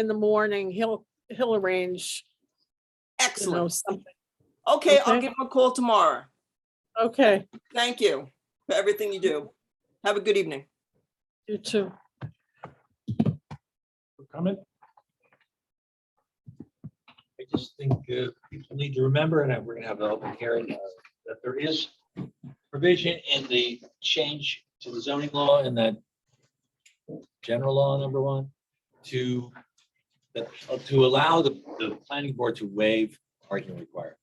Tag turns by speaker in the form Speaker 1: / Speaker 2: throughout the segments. Speaker 1: in the morning, he'll, he'll arrange, you know,
Speaker 2: Excellent.
Speaker 1: something.
Speaker 2: Okay, I'll
Speaker 1: Okay.
Speaker 2: give him a call tomorrow.
Speaker 1: Okay,
Speaker 2: Thank you for everything you do. Have a good evening.
Speaker 1: you too.
Speaker 3: comment? I just think uh, people need to remember, and we're gonna have an open hearing, uh, that there is provision in the change to the zoning law and that general law, number one, to, that- uh, to allow the, the planning board to waive parking requirement.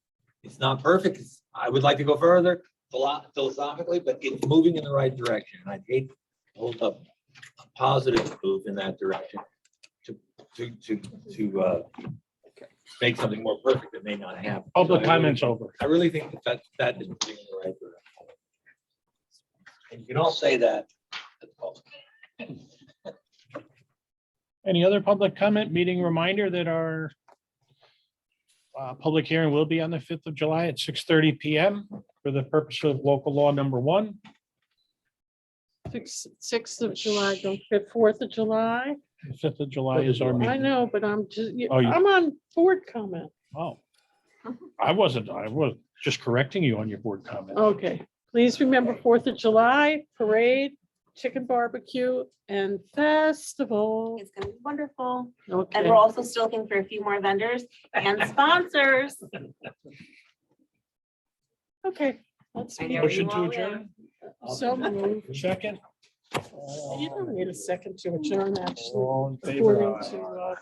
Speaker 3: It's not perfect. It's- I would like to go further philo- philosophically, but it's moving in the right direction. And I hate to hold up a positive move in that direction to, to, to, uh, make something more perfect that may not happen.
Speaker 4: Public
Speaker 3: So I really-
Speaker 4: comments over.
Speaker 3: I really think that that, that is moving in the right direction. And you can all say that. at the public.
Speaker 4: Any other public comment? Meeting reminder that our uh, public hearing will be on the fifth of July at six thirty PM for the purpose of local law number one.
Speaker 1: Six, sixth of July, don't forget Fourth of July.
Speaker 4: The Fifth of July is our
Speaker 1: I
Speaker 4: meeting.
Speaker 1: know, but I'm just,
Speaker 4: Oh, you-
Speaker 1: I'm on board comment.
Speaker 4: Oh. I wasn't, I was just correcting you on your board comment.
Speaker 1: Okay, please remember Fourth of July parade, chicken barbecue and festival.
Speaker 5: It's gonna be wonderful. And
Speaker 1: Okay,
Speaker 5: we're also still looking for a few more vendors and sponsors.
Speaker 1: okay. Let's
Speaker 5: I
Speaker 1: be-
Speaker 5: know you
Speaker 4: Motion to
Speaker 5: all
Speaker 4: adjourn,
Speaker 1: So moved.
Speaker 4: second?
Speaker 1: You don't need a second to adjourn, actually.
Speaker 4: All in favor?
Speaker 1: According to, uh,